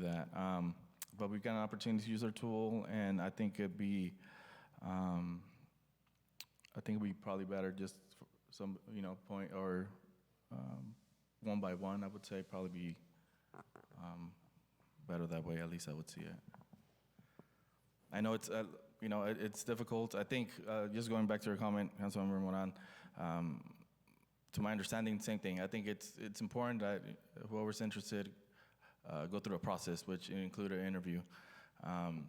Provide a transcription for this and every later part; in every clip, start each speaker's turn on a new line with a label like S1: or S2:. S1: that. Um, but we've got an opportunity to use their tool, and I think it'd be, um, I think it'd be probably better just for some, you know, point or um, one by one. I would say probably be um, better that way. At least I would see it. I know it's, uh, you know, it, it's difficult. I think uh, just going back to your comment, Councilmember Moran. Um, to my understanding, same thing. I think it's it's important that whoever's interested uh, go through a process, which include an interview. Um,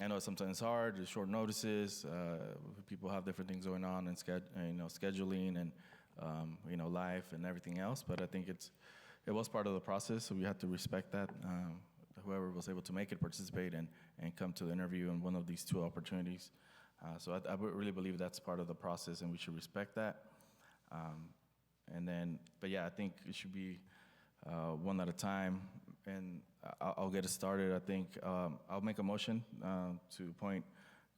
S1: I know sometimes it's hard, there's short notices. Uh, people have different things going on and sched- uh, you know scheduling and um, you know life and everything else. But I think it's it was part of the process, so we have to respect that. Um, whoever was able to make it participate and and come to the interview in one of these two opportunities. Uh, so I, I would really believe that's part of the process, and we should respect that. Um, and then, but yeah, I think it should be uh, one at a time. And I'll, I'll get it started. I think um, I'll make a motion um, to appoint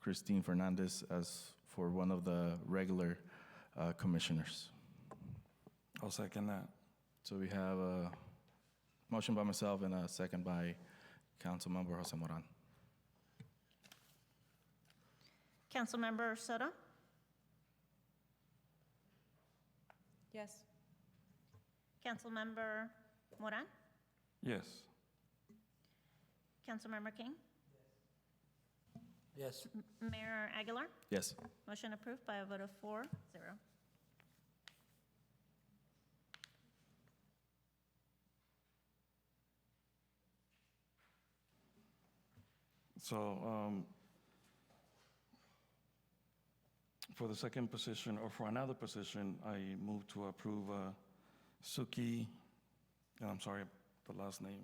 S1: Christine Fernandez as for one of the regular uh, commissioners.
S2: I'll second that.
S1: So we have a motion by myself and a second by Councilmember Jose Moran.
S3: Councilmember Soto?
S4: Yes.
S3: Councilmember Moran?
S2: Yes.
S3: Councilmember King?
S5: Yes,
S3: M- Mayor Aguilar?
S1: Yes.
S3: Motion approved by a vote of four, zero.
S2: So um, for the second position, or for another position, I move to approve uh, Suki, and I'm sorry, the last name,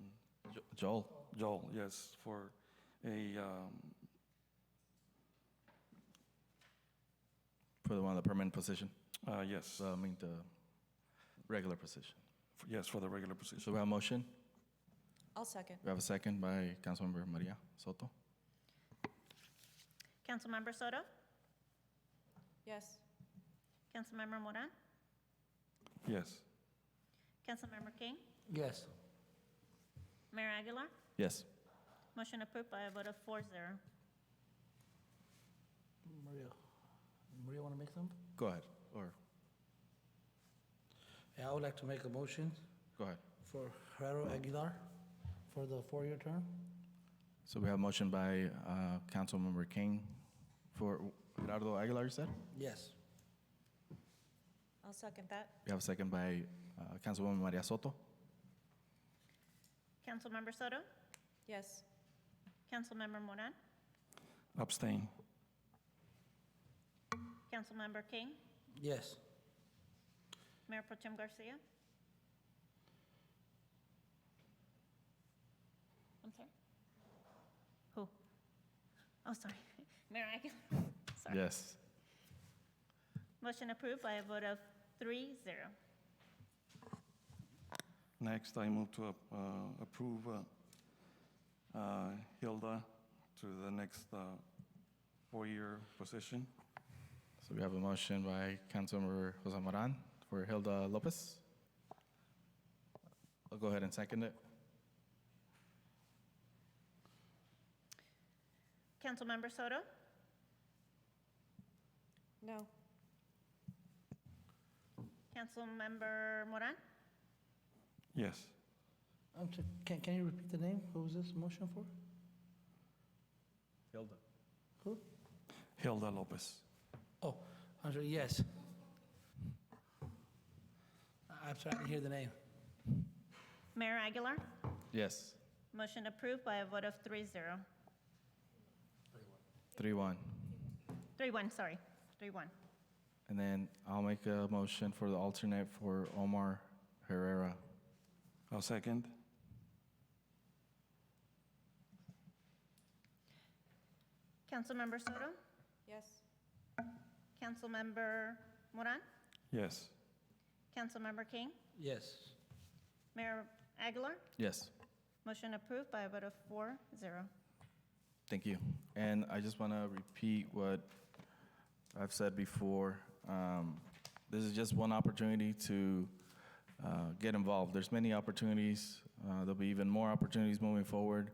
S1: Jo- Joel.
S2: Joel, yes, for a, um,
S1: For the one, the permanent position,
S2: uh, yes,
S1: so I mean the regular position.
S2: f- yes, for the regular
S1: So
S2: position.
S1: we have a motion.
S4: I'll second.
S1: We have a second by Councilmember Maria Soto.
S3: Councilmember Soto?
S4: Yes.
S3: Councilmember Moran?
S2: Yes.
S3: Councilmember King?
S5: yes,
S3: Mayor Aguilar?
S1: Yes.
S3: Motion approved by a vote of four, zero.
S5: Maria. Maria, want to make them?
S1: Go ahead. Or
S5: Yeah, I would like to make a motion
S1: go ahead.
S5: for Herrero Aguilar for the four-year term.
S1: So we have motion by uh, Councilmember King for Gerardo Aguilar, you said?
S5: Yes,
S4: I'll second that.
S1: We have a second by uh, Councilwoman Maria Soto.
S3: Councilmember Soto?
S4: Yes.
S3: Councilmember Moran?
S2: Abstain.
S3: Councilmember King?
S5: yes,
S3: Mayor Pro Tem Garcia? I'm sorry? Who? Oh, sorry. Mayor Aguilar? Sorry.
S1: Yes.
S3: Motion approved by a vote of three, zero.
S2: Next, I move to ap- uh, approve uh, uh, Hilda to the next uh, four-year position.
S1: So we have a motion by Councilmember Jose Moran for Hilda Lopez. I'll go ahead and second it.
S3: Councilmember Soto?
S4: No.
S3: Councilmember Moran?
S2: Yes.
S5: I'm sorry, can, can you repeat the name? Who was this motion for?
S1: Hilda.
S5: Who?
S2: Hilda Lopez.
S5: Oh, I'm sorry, yes. I- I'm sorry, I didn't hear the name.
S3: Mayor Aguilar?
S1: Yes.
S3: Motion approved by a vote of three, zero.
S1: Three one.
S3: Three, one, sorry. Three, one.
S1: And then I'll make a motion for the alternate for Omar Herrera.
S2: I'll second.
S3: Councilmember Soto?
S4: Yes.
S3: Councilmember Moran?
S2: Yes.
S3: Councilmember King?
S5: Yes,
S3: Mayor Aguilar?
S1: Yes.
S3: Motion approved by a vote of four, zero.
S1: Thank you. And I just want to repeat what I've said before. Um, This is just one opportunity to uh, get involved. There's many opportunities Uh, There'll be even more opportunities moving forward.